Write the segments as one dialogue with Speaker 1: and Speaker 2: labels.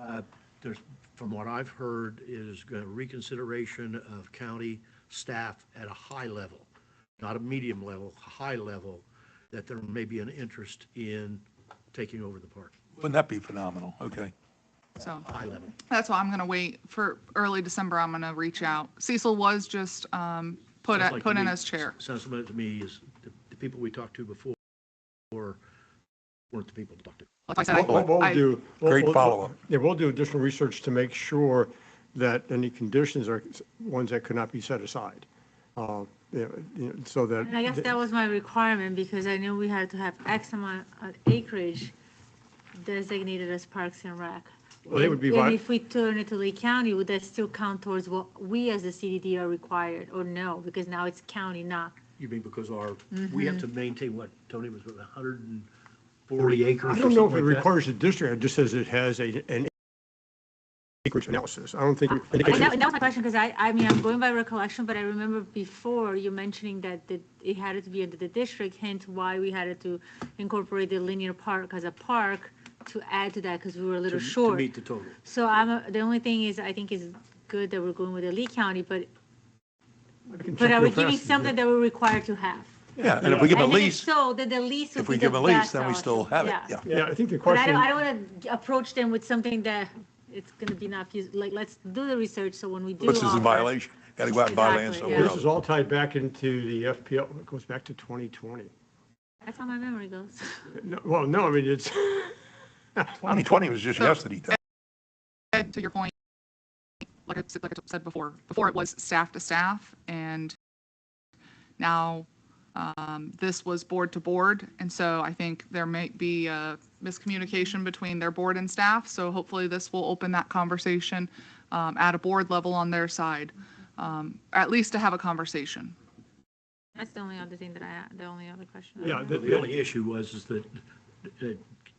Speaker 1: Uh, there's, from what I've heard, is uh, reconsideration of county staff at a high level, not a medium level, high level, that there may be an interest in taking over the park,
Speaker 2: Wouldn't that be phenomenal? Okay.
Speaker 3: So
Speaker 1: high level.
Speaker 3: that's why I'm going to wait for early December. I'm going to reach out. Cecil was just um, put,
Speaker 1: Sounds
Speaker 3: at-
Speaker 1: like
Speaker 3: put
Speaker 1: to
Speaker 3: in
Speaker 1: me-
Speaker 3: as chair.
Speaker 1: Sounds like to me is the, the people we talked to before weren't the people to talk to.
Speaker 3: Like I said, I-
Speaker 4: What what we'll
Speaker 3: I-
Speaker 4: do. we'll-
Speaker 2: Great
Speaker 4: we'll-
Speaker 2: follow-up.
Speaker 4: Yeah, we'll do additional research to make sure that any conditions are ones that could not be set aside. Uh, yeah, you know, So that.
Speaker 5: And I guess that was my requirement because I knew we had to have X amount of acreage designated as parks and rec.
Speaker 4: Well, they would be vi-
Speaker 5: And if we turn it to Lee County, would that still count towards what we as the CDD are required or no? Because now it's county, not.
Speaker 1: You mean because our,
Speaker 3: Mm-hmm.
Speaker 1: we have to maintain what, Tony, was it hundred and forty acres
Speaker 4: I
Speaker 1: or
Speaker 4: don't know if it
Speaker 1: something like that?
Speaker 4: requires the district, it just says it has a, an acreage analysis. I don't think.
Speaker 5: And that, that was my question because I, I mean, I'm going by recollection, but I remember before you mentioning that the- it had to be under the district, hence why we had to incorporate the linear park as a park to add to that because we were a
Speaker 1: To-
Speaker 5: little
Speaker 1: To
Speaker 5: short.
Speaker 1: meet the total.
Speaker 5: So I'm, a- the only thing is, I think it's good that we're going with the Lee County, but, but are we giving something that we're required to have?
Speaker 2: Yeah, and if we give a
Speaker 5: And if
Speaker 2: lease,
Speaker 5: So then the lease would
Speaker 2: if
Speaker 5: be
Speaker 2: we
Speaker 5: the
Speaker 2: give a lease,
Speaker 5: best
Speaker 2: then we still
Speaker 5: option.
Speaker 2: have it, yeah.
Speaker 4: Yeah, I think the
Speaker 5: But I
Speaker 4: question,
Speaker 5: don't, I don't want to approach them with something that it's going to be not, fus- like, let's do the research, so when we do.
Speaker 2: Puts us
Speaker 5: offer-
Speaker 2: in violation. Got to go out and buy land
Speaker 5: Exactly,
Speaker 2: somewhere
Speaker 5: yeah.
Speaker 4: this is
Speaker 2: else.
Speaker 4: all tied back into the FPL, it goes back to 2020.
Speaker 5: That's how my memory goes.
Speaker 4: No, Well, no, I mean, it's,
Speaker 2: 2020 was just yesterday. Tom.
Speaker 3: Ed, to your point, like I said, like I said before, before it was staff to staff and now um, this was board to board. And so I think there might be a miscommunication between their board and staff. So hopefully this will open that conversation um, at a board level on their side, um, at least to have a conversation.
Speaker 5: That's the only other thing that I, had- the only other question. I
Speaker 4: yeah,
Speaker 5: had.
Speaker 4: the-
Speaker 1: The
Speaker 4: the-
Speaker 1: only issue was is that, uh,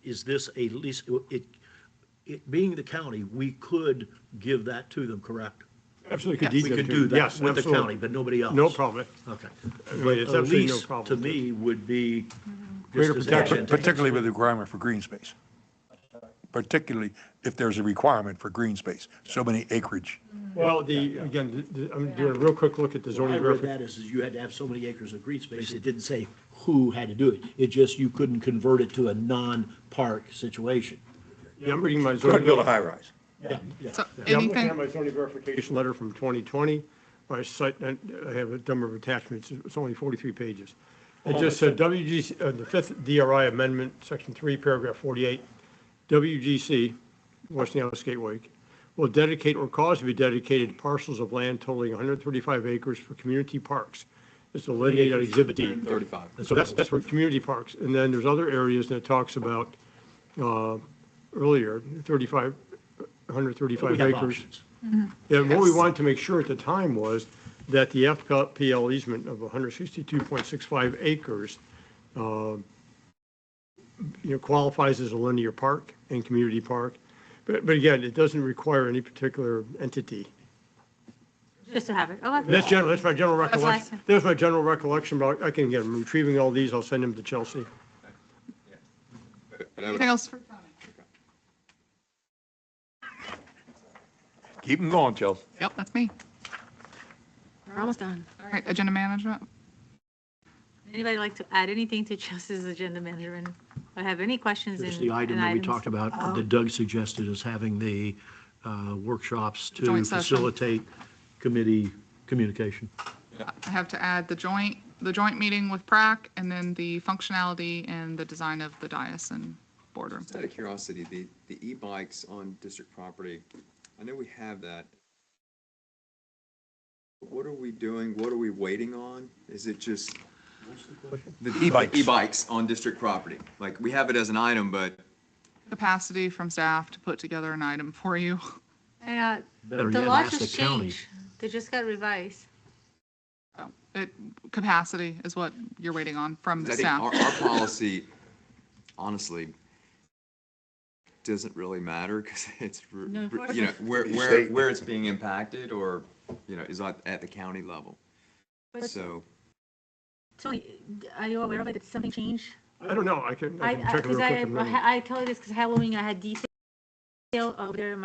Speaker 1: is this a lease, it, it being the county, we could give that to them, correct?
Speaker 4: absolutely.
Speaker 1: We could do that
Speaker 4: Yes,
Speaker 1: with the
Speaker 4: absolutely.
Speaker 1: county, but nobody else.
Speaker 4: No problem.
Speaker 1: Okay.
Speaker 4: mean,
Speaker 1: But
Speaker 4: it's
Speaker 1: a
Speaker 4: absolutely no
Speaker 1: lease,
Speaker 4: problem
Speaker 1: to
Speaker 4: with
Speaker 1: me, would be just
Speaker 4: Greater
Speaker 1: as
Speaker 4: protection.
Speaker 1: advantageous.
Speaker 2: Particularly with the requirement for green space. Particularly if there's a requirement for green space, so many acreage.
Speaker 4: Well, the, again, the- the- I'm doing a real quick look at the
Speaker 1: I
Speaker 4: zoning
Speaker 1: read
Speaker 4: verification.
Speaker 1: that as, is you had to have so many acres of green space, it didn't say who had to do it, it just, you couldn't convert it to a non-park situation.
Speaker 4: Yeah, I'm reading my zoning.
Speaker 2: Couldn't build a high-rise.
Speaker 1: Yeah, yeah.
Speaker 3: So
Speaker 4: Yeah, I'm looking
Speaker 3: anything?
Speaker 4: at my zoning verification letter from 2020. I cite, and I have a number of attachments, it's only 43 pages. It just said WGC, uh, the fifth DRI amendment, section three, paragraph 48, WGC, Westinghouse Gateway, will dedicate or cause to be dedicated parcels of land totaling 135 acres for community parks. It's delineated on Exhibit D.
Speaker 6: 35.
Speaker 4: So that's, that's for community parks. And then there's other areas that it talks about uh, earlier, 35,
Speaker 1: We
Speaker 4: 135
Speaker 1: have
Speaker 4: acres.
Speaker 1: options.
Speaker 4: And what we
Speaker 3: Yes.
Speaker 4: wanted to make sure at the time was that the FPL easement of 162.65 acres, uh, you know, qualifies as a linear park and community park. But, but again, it doesn't require any particular entity.
Speaker 5: Just to have it. Oh, Okay.
Speaker 4: That's general, that's my general
Speaker 5: That's
Speaker 4: recollection.
Speaker 5: awesome.
Speaker 4: That's my general recollection, but I can, again, I'm retrieving all these, I'll send them to Chelsea.
Speaker 6: And I would-
Speaker 3: Anything else for Tony?
Speaker 2: Keep them going, Chelsea.
Speaker 3: Yep, that's me.
Speaker 5: We're almost done.
Speaker 3: All right, agenda management.
Speaker 5: Anybody like to add anything to Chelsea's agenda management or have any questions?
Speaker 1: There's
Speaker 5: in-
Speaker 1: the item
Speaker 5: in
Speaker 1: that we
Speaker 5: items?
Speaker 1: talked about, that Doug suggested is having the uh, workshops to
Speaker 3: Joint session.
Speaker 1: facilitate committee communication.
Speaker 3: I have to add the joint, the joint meeting with PrAC and then the functionality and the design of the dais and boardroom.
Speaker 6: Just out of curiosity, the, the e-bikes on district property, I know we have that. What are we doing? What are we waiting on? Is it just? The
Speaker 2: E-bikes.
Speaker 6: E-bikes on district property. Like, we have it as an item, but
Speaker 3: Capacity from staff to put together an item for you.
Speaker 5: Yeah,
Speaker 1: Better
Speaker 5: The
Speaker 1: yet,
Speaker 5: law
Speaker 1: ask the
Speaker 5: just
Speaker 1: county.
Speaker 5: changed. They just got revised.
Speaker 3: It, capacity is what you're waiting on from
Speaker 6: I think
Speaker 3: staff.
Speaker 6: our, our policy, honestly, doesn't really matter because it's, r-
Speaker 5: No,
Speaker 6: r- you know, where,
Speaker 2: You
Speaker 6: where,
Speaker 2: state-
Speaker 6: where it's being impacted or, you know, is at, at the county level.
Speaker 5: But-
Speaker 6: So.
Speaker 5: Tony, are you aware of it? Did something change?
Speaker 4: I don't know, I can,
Speaker 5: I,
Speaker 4: I can check it real
Speaker 5: because
Speaker 4: quick.
Speaker 5: I,
Speaker 4: in a minute.
Speaker 5: I tell you this because Halloween, I had detail over there in my